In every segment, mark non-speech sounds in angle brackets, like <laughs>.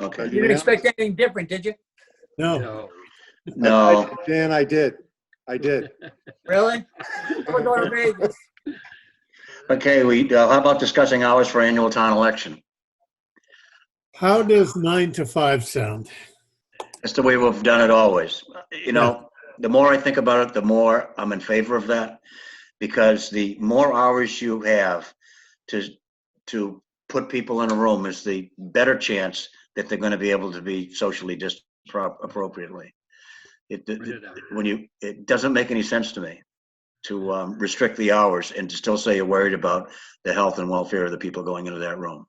Okay. You You didn't Yeah. expect anything different, did you? No, No. No. I- Dan, I did. I did. Really? We're going to Vegas. Okay, we, uh, how about discussing hours for annual town election? how does nine to five sound? That's the way we've done it always. You know, the more I think about it, the more I'm in favor of that. Because the more hours you have to, to put people in a room is the better chance that they're gonna be able to be socially dis, pro- appropriately. It, Put it out. when you, it doesn't make any sense to me to um, restrict the hours and to still say you're worried about the health and welfare of the people going into that room.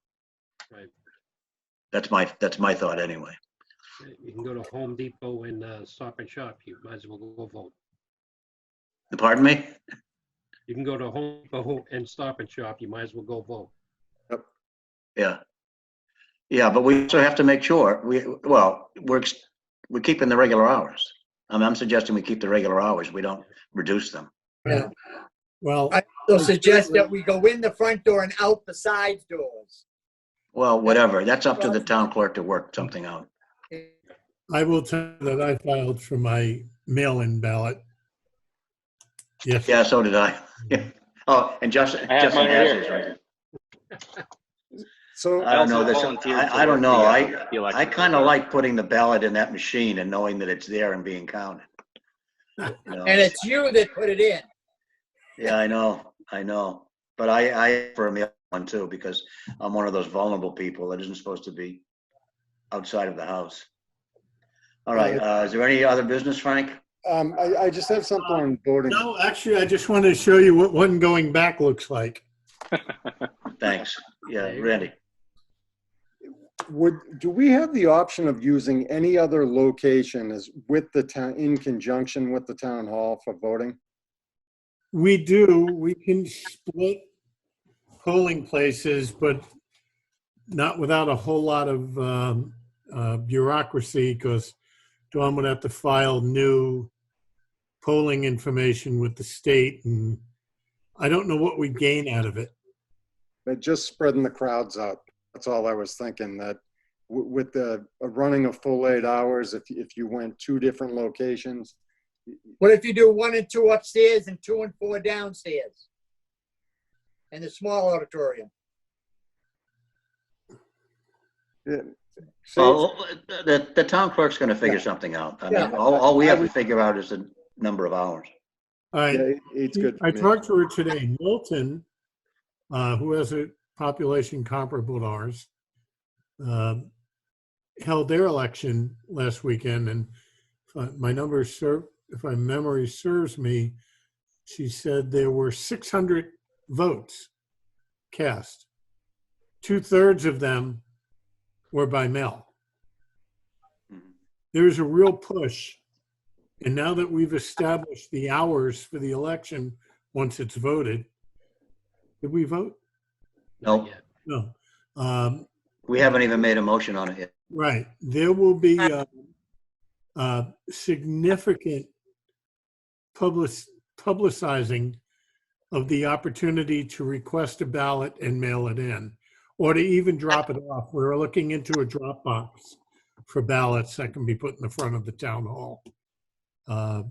Right. That's my, that's my thought anyway. You can go to Home Depot and uh, Stop and Shop. You might as well go vote. Pardon me? You can go to Home Depot and Stop and Shop. You might as well go vote. Yeah. Yeah, but we also have to make sure, we, well, we're, ex- we're keeping the regular hours. I mean, I'm suggesting we keep the regular hours, we don't reduce them. Yeah. Well, I- They'll suggest that we go in the front door and out the side doors. Well, whatever, that's up to the town clerk to work something out. I will tell you that I filed for my mail-in ballot. Yes, Yeah, so did I. <laughs> Yeah. Oh, and Justin, I have Justin mine has here. his right. So. I don't know, also this, volunteered I, to I don't work know, the, uh, I, the election. I kind of like putting the ballot in that machine and knowing that it's there and being counted. You know? And it's you that put it in. Yeah, I know, I know. But I, I asked for a meal one too, because I'm one of those vulnerable people that isn't supposed to be outside of the house. All right, uh, is there any other business, Frank? Um, I, I just have something on voting. no, actually, I just wanted to show you what one going back looks like. Thanks. Yeah, Randy. Would, do we have the option of using any other location as with the town, in conjunction with the town hall for voting? We do, we can split polling places, but not without a whole lot of um, uh, bureaucracy, because Dawn would have to file new polling information with the state, and I don't know what we gain out of it. But just spreading the crowds out, that's all I was thinking, that w- with the, uh, running a full eight hours, if, if you went two different locations, What if you do one and two upstairs and two and four downstairs? In the small auditorium. so Well, the, the town clerk's gonna figure something out. I mean, Yeah. all, all we have to figure out is the number of hours. All right, yeah, eight's good I for me. talked to her today. Milton, uh, who has a population comparable to ours, um, held their election last weekend, and if I- my number serve, if my memory serves me, she said there were 600 votes cast. Two thirds of them were by mail Mm-hmm. there's a real push. And now that we've established the hours for the election, once it's voted, did we vote? No, No. Um, we haven't even made a motion on it yet. right. There will be uh, uh, significant public publicizing of the opportunity to request a ballot and mail it in, or to even drop it off. We're looking into a drop box for ballots that can be put in the front of the town hall. Uh,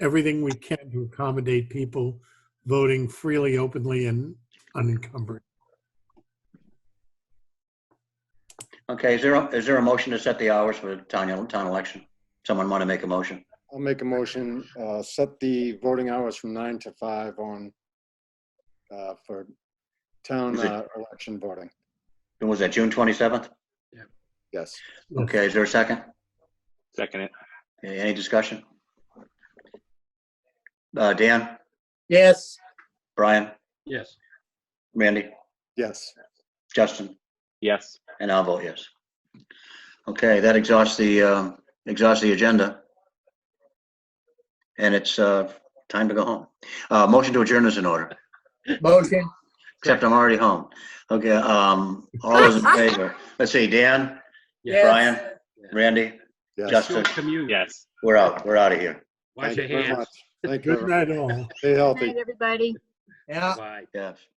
Everything we can to accommodate people voting freely, openly, and unencumbered. Okay, is there, a- is there a motion to set the hours for the town, town election? Someone wanna make a motion? I'll make a motion, uh, set the voting hours from nine to five on, uh, for town Is it- uh, election voting, And was that June twenty-seventh? yes. Okay, is there a second? Second it. Okay, Any discussion? Uh, Dan, Yes, Brian, Yes, Randy, Yes, Justin, Yes. and I'll vote yes. Okay, that exhausts the, um, exhausts the agenda. And it's, uh, time to go home. Uh, motion to adjourn is in order, motion. except I'm already home. Okay, um, all those in favor? Let's see, Dan, Yeah. Brian, Randy, yes. Justin, Short commute. Yes. we're out, we're out of here. Wash Thank your you very hands. much. Thank you. Good everyone. night all. Stay Good healthy. night, everybody. Yeah. Bye. Yes.